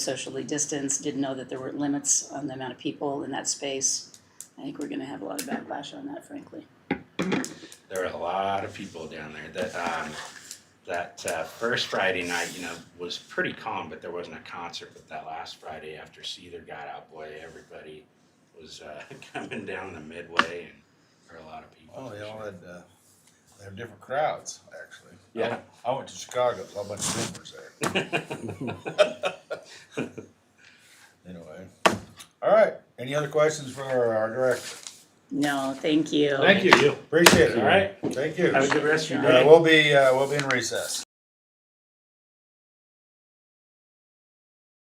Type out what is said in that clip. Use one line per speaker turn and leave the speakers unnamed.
socially distanced, didn't know that there were limits on the amount of people in that space. I think we're gonna have a lot of backlash on that, frankly.
there were a lot of people down there that um, that uh, first Friday night, you know, was pretty calm, but there wasn't a concert. But that last Friday after Seether got out, boy, everybody was uh, coming down the midway, and there were a lot of people.
Oh,
for
they all
sure.
had, uh, they have different crowds, actually.
Yeah.
I went- I went to Chicago, saw a bunch of Zoomers there. Anyway, all right, any other questions for our our director?
No, thank you.
Thank you.
Appreciate it.
All right.
Thank you.
Have a good rest of your
Uh,
day.
we'll be, uh, we'll be in recess.